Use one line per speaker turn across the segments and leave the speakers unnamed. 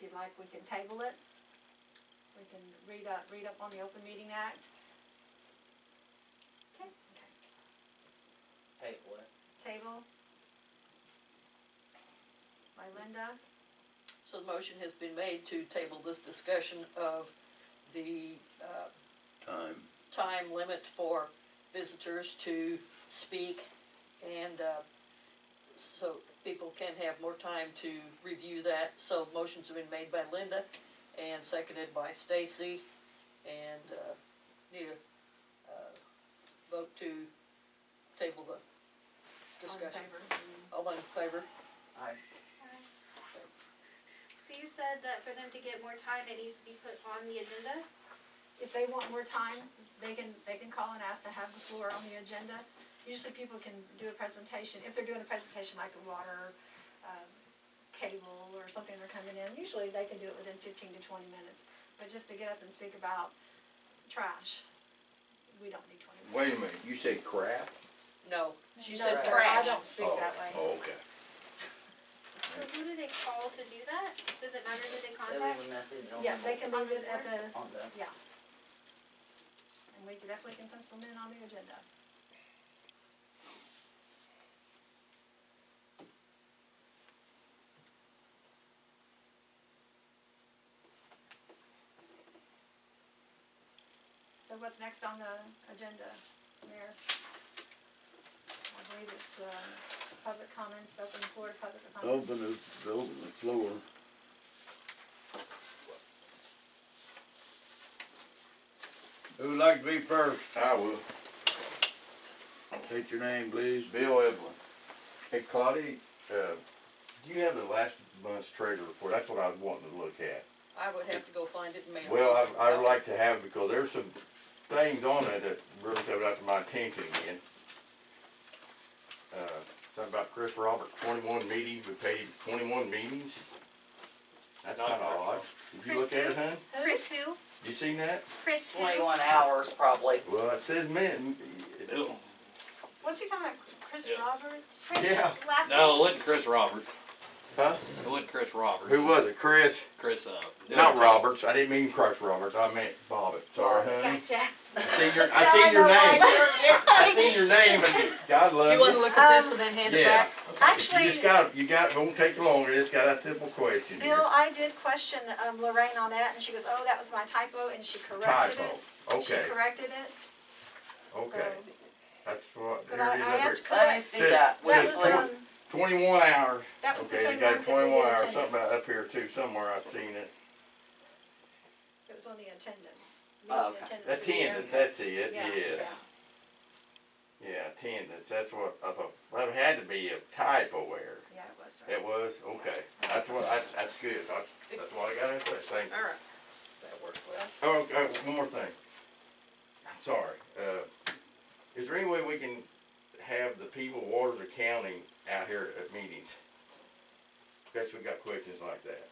you like, we can table it. We can read up, read up on the Open Meeting Act. Okay.
table it.
Table. By Linda,
So the motion has been made to table this discussion of the uh,
time.
time limit for visitors to speak and uh, so people can have more time to review that. So motions have been made by Linda and seconded by Stacy and uh, need a uh, vote to table the
all in
discussion.
favor?
All in favor?
Aye.
So you said that for them to get more time, it needs to be put on the agenda?
If they want more time, they can, they can call and ask to have the floor on the agenda. Usually people can do a presentation, if they're doing a presentation like the water, um, cable or something they're coming in, usually they can do it within fifteen to twenty minutes. But just to get up and speak about trash, we don't need twenty minutes.
Wait a minute, you say crap?
No. She
No,
said
sir, I
trash.
don't speak
Oh,
that way.
oh, okay.
So who do they call to do that? Does it matter who they
They leave
contact?
a
oh.
message on,
Yeah, they can leave it at the,
on the,
yeah. And we can definitely can pencil them in on the agenda. So what's next on the agenda, Mayor? I believe it's, uh, public comments, open the floor to public
Oh,
comments.
Open the, the- open the floor.
Who'd like to be first?
I will. State your name, please.
Bill Evelyn. Hey Claudia, uh, do you have the last month's treasury report? That's what I was wanting to look at.
I would have to go find it and mail it.
Well, I, I'd like to have, because there's some things on it that really coming out to my attention again. Uh, something about Chris Robert, twenty-one meetings, we paid him twenty-one meetings? That's
Not
kinda
very
odd. Did you look at it, huh?
Chris who?
You seen that?
Chris who?
twenty-one hours probably.
Well, it says men.
What's he talking about, Chris
Yeah.
Roberts?
Chris
Yeah.
last
No, it
name?
wasn't Chris Roberts.
Huh?
It wasn't Chris Roberts.
Who was it? Chris?
Chris, uh. the
Not
other-
Roberts. I didn't mean Crush Roberts. I meant Bobbitt. Sorry, honey.
Gotcha.
I seen your, I seen your name. I seen your name and God
You wanna
love
look at this and then hand
you.
it
Um, Yeah.
back?
You
Actually,
just got, you got, it won't take long. It's got that simple question.
Bill, I did question um, Lorraine on that, and she goes, "Oh, that was my typo," and she corrected
Typo.
it.
Okay,
She corrected it.
okay.
So,
That's what,
but
here
I,
it
I
is
asked,
up
cause
Let
I,
me see
Just-
that,
that
wait,
just
was
please.
um,
here. Twenty-one hours.
that was the
Okay,
same one that
they got
they did
twenty-one hours, something
attendance.
about up here too, somewhere I seen it.
It was on the attendance.
Oh,
Meeting
okay.
attendance for the year.
Attendance, that's it,
Yeah,
yes.
yeah.
Yeah, attendance, that's what I thought. That had to be a typo error.
Yeah, it was. sorry.
It was, okay, that's what, that's, that's good, that's, that's what I gotta say, thank you.
Alright, that worked well.
Oh, okay, one more thing. I'm sorry, uh, is there any way we can have the people of Waters County out here at meetings? Because we got questions like that,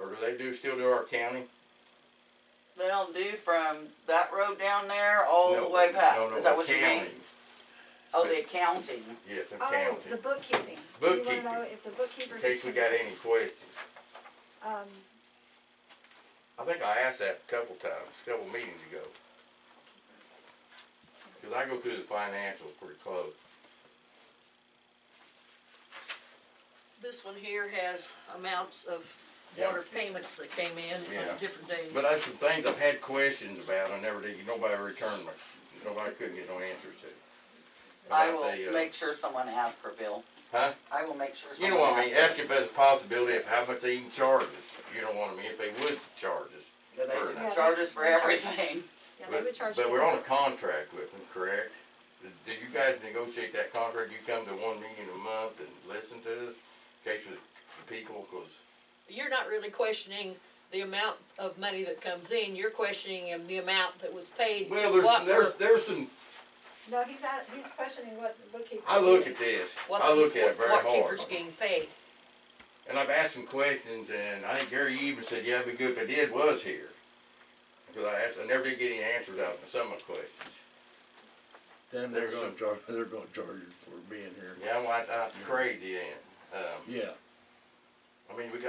or do they do, still do our county?
They don't do from that road down there all the
No,
way
no,
past,
no,
is that what you mean?
county.
Oh, the accounting.
Yes, in
Oh, the
county,
bookkeeping. You
Bookkeeping.
wanna know if the bookkeeper.
in case we got any questions.
Um,
I think I asked that a couple times, a couple meetings ago. Cause I go through the financials pretty close.
This one here has amounts of
Yeah.
water payments that came in
Yeah.
on different days.
But that's some things I've had questions about, I never did, nobody returned my, nobody couldn't get no answers to.
I
About the,
will
uh,
make sure someone asks for Bill.
Huh?
I will make sure
You
someone
know what I mean,
asks
ask if there's a possibility of how much they even charge us, you know what I mean, if they would charge us.
for
Fair
Bill. They
enough.
charge us for everything.
yeah, they
But,
would charge.
but
you
we're on a
more.
contract with them, correct? Did- Did you guys negotiate that contract, you come to one meeting a month and listen to us, in case with the people, cause
You're not really questioning the amount of money that comes in, you're questioning the amount that was paid.
Well,
what
there's, there's,
were-
there's some,
No, he's at, he's questioning what the bookkeeper.
I look
did.
at this,
what
I
the-
look at it very
what
hard.
keeper's getting paid.
And I've asked some questions and I think Gary even said, yeah, it'd be good if I did was here. Cause I asked, I never did get any answers out of some of the questions.
Then they're
There's
gonna
some-
charge, they're gonna charge you for being here.
Yeah, well, I- that's crazy, and, um,
Yeah.
I mean, we got